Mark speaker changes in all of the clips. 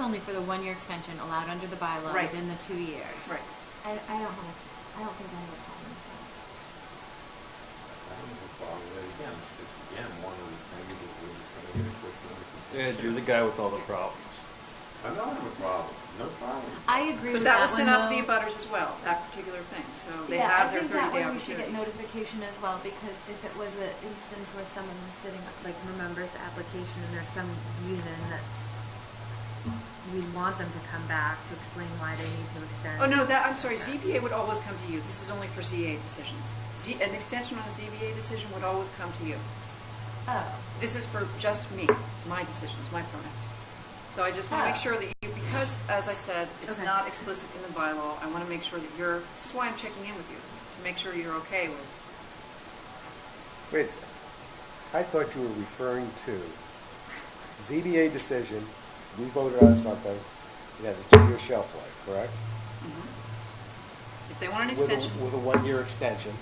Speaker 1: only for the one-year extension allowed under the bylaw
Speaker 2: Right.
Speaker 1: within the two years.
Speaker 2: Right.
Speaker 3: I, I don't have, I don't think I have a problem with that.
Speaker 4: Again, it's again, one of the things that we're just gonna get equipped with.
Speaker 5: Ed, you're the guy with all the problems.
Speaker 4: I don't have a problem, no problem.
Speaker 1: I agree
Speaker 2: But
Speaker 1: with
Speaker 2: that
Speaker 1: that
Speaker 2: was
Speaker 1: one
Speaker 2: sent out to the
Speaker 1: though.
Speaker 2: abutters as well, that particular thing, so they
Speaker 1: Yeah,
Speaker 2: have their
Speaker 1: I think that
Speaker 2: thirty-day
Speaker 1: way we should get
Speaker 2: opportunity.
Speaker 1: notification as well, because if it was an instance where someone was sitting, like, remembers the application and there's some reason that we want them to come back to explain why they need to extend.
Speaker 2: Oh, no, that, I'm sorry, ZBA would always come to you, this is only for ZA decisions. Z, an extension on a ZBA decision would always come to you.
Speaker 1: Oh,
Speaker 2: This is for just me, my decisions, my permits. So I just want to make
Speaker 1: Oh.
Speaker 2: sure that you, because as I said, it's
Speaker 1: Okay.
Speaker 2: not explicit in the bylaw, I want to make sure that you're, this is why I'm checking in with you, to make sure you're okay with.
Speaker 6: Wait a second. I thought you were referring to ZBA decision, we voted on something, it has a two-year shelf life, correct?
Speaker 2: mm-hmm. If they want an
Speaker 6: With a-
Speaker 2: extension,
Speaker 6: With a one-year extension.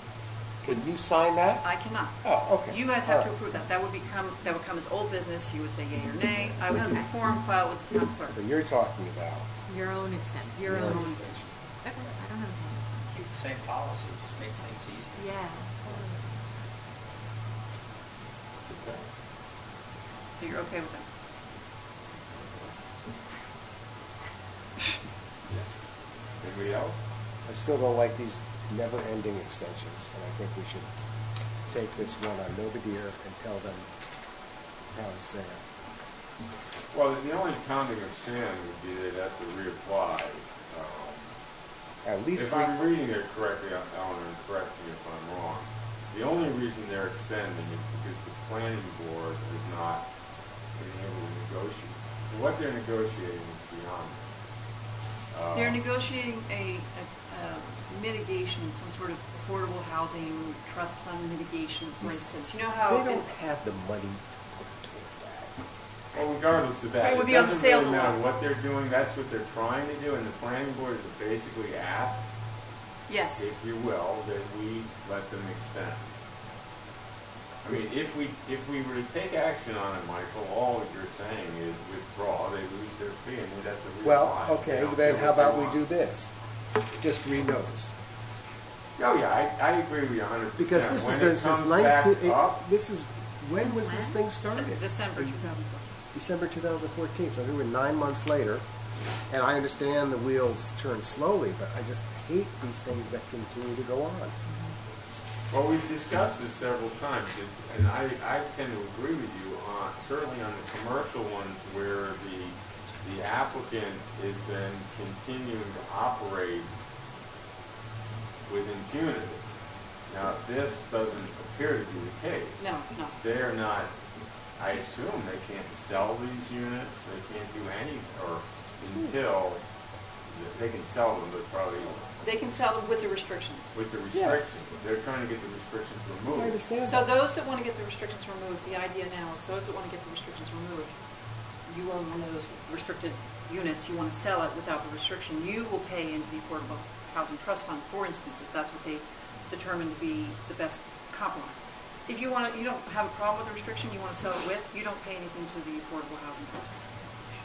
Speaker 6: Can you sign that?
Speaker 2: I cannot.
Speaker 6: Oh, okay.
Speaker 2: You guys have to
Speaker 6: All right.
Speaker 2: approve that. That would become, that would come as old business, you would say yea or nay. I would do a
Speaker 1: Okay.
Speaker 2: form file with the town clerk.
Speaker 6: But you're talking about
Speaker 1: your own extension, your
Speaker 6: your
Speaker 1: own.
Speaker 6: own
Speaker 1: extension.
Speaker 6: extension.
Speaker 1: Okay, I don't have a problem.
Speaker 7: Keep the same policy, just make things easier.
Speaker 1: Yeah.
Speaker 2: So you're okay with that?
Speaker 4: Anybody else?
Speaker 6: I still don't like these never-ending extensions, and I think we should take this one on Novadear and tell them how it's saying.
Speaker 4: Well, the only pounding of sand would be they'd have to reapply. um,
Speaker 6: At least.
Speaker 4: If
Speaker 6: we-
Speaker 4: I'm reading it correctly, uh, Eleanor, and correct me if I'm wrong, the only reason they're extending is because the planning board is not being able to negotiate. What they're negotiating is beyond. uh,
Speaker 2: They're negotiating a, a- a mitigation, some sort of affordable housing, trust fund mitigation, for instance. You know how?
Speaker 6: They
Speaker 2: in-
Speaker 6: don't have the money to put toward
Speaker 4: Well, regardless of that,
Speaker 2: It
Speaker 4: it
Speaker 2: would be on the
Speaker 4: doesn't
Speaker 2: sale
Speaker 4: really
Speaker 2: of the
Speaker 4: matter
Speaker 2: lot.
Speaker 4: what they're doing, that's what they're trying to do, and the planning board is basically asked,
Speaker 2: Yes.
Speaker 4: if you will, that we let them extend. I mean, if we, if we were to take action on it, Michael, all you're saying is withdraw, they lose their fee and they'd have to reapply.
Speaker 6: that. Well,
Speaker 4: They
Speaker 6: okay,
Speaker 4: don't
Speaker 6: then
Speaker 4: get
Speaker 6: how
Speaker 4: what they
Speaker 6: about we
Speaker 4: want.
Speaker 6: do this? Just renotice.
Speaker 4: Oh, yeah, I, I agree with you a hundred percent.
Speaker 6: Because this
Speaker 4: When
Speaker 6: has been
Speaker 4: it
Speaker 6: since
Speaker 4: comes back
Speaker 6: nineteen, it-
Speaker 4: up,
Speaker 6: this is, when was this thing started?
Speaker 2: Se- December 2004.
Speaker 6: December 2014, so we were nine months later. And I understand the wheels turn slowly, but I just hate these things that continue to go on.
Speaker 4: Well, we've discussed this several times, and- and I, I tend to agree with you on, certainly on the commercial ones where the, the applicant is then continuing to operate with impunity. Now, this doesn't appear to be the case.
Speaker 2: No, no.
Speaker 4: They are not, I assume they can't sell these units, they can't do any, or
Speaker 2: Hmm.
Speaker 4: until, they can sell them, but probably
Speaker 2: They can sell them with the restrictions.
Speaker 4: with the
Speaker 6: Yeah.
Speaker 4: restrictions. They're trying to get the restrictions removed.
Speaker 6: I understand
Speaker 2: So
Speaker 6: that.
Speaker 2: those that want to get the restrictions removed, the idea now is those that want to get the restrictions removed, you own one of those restricted units, you want to sell it without the restriction, you will pay into the Affordable Housing Trust Fund, for instance, if that's what they determine to be the best compromise. If you want to, you don't have a problem with the restriction, you want to sell it with, you don't pay anything to the Affordable Housing Trust Fund.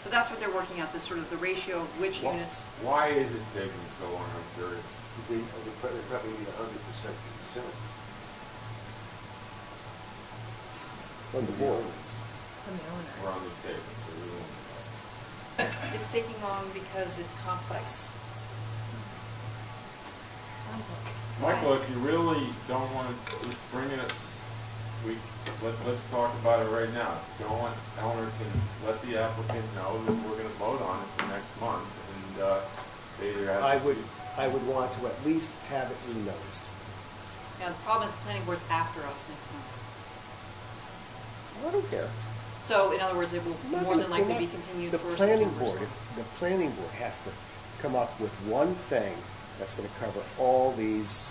Speaker 2: So that's what they're working out, this sort of the ratio of which
Speaker 4: Why-
Speaker 2: units.
Speaker 4: Why is it taking so long, I'm curious?
Speaker 8: Because they, they probably, they probably need a hundred percent consent.
Speaker 6: On the board.
Speaker 1: From the owner.
Speaker 4: We're on the table, so we won't.
Speaker 2: It's taking long because it's complex.
Speaker 4: Michael, if you really don't want to, just bring it, we, let, let's talk about it right now. Go on, Eleanor can let the applicant know that we're gonna vote on it for next month, and, uh, they either have.
Speaker 6: I
Speaker 4: to-
Speaker 6: would, I would want to at least have it renoticed.
Speaker 2: Now, the problem is the planning board's after us next month.
Speaker 6: I don't care.
Speaker 2: So, in other words, it will
Speaker 6: I'm not
Speaker 2: more
Speaker 6: gonna-
Speaker 2: than
Speaker 6: we're
Speaker 2: likely
Speaker 6: not-
Speaker 2: be continued
Speaker 6: The
Speaker 2: for
Speaker 6: planning
Speaker 2: September.
Speaker 6: board, if- the planning board has to come up with one thing that's gonna cover all these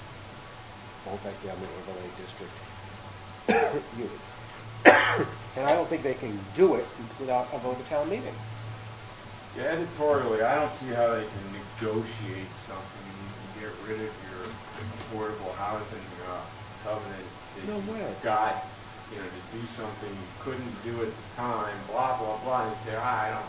Speaker 6: multifamily overlay district units. And I don't think they can do it without a vote of town meeting.
Speaker 4: Yeah, editorially, I don't see how they can negotiate something, you can get rid of your affordable housing uh, covenant. that
Speaker 6: No
Speaker 4: you
Speaker 6: way.
Speaker 4: Got, you know, to do something you couldn't do at the time, blah, blah, blah, and say, "Ah, I don't,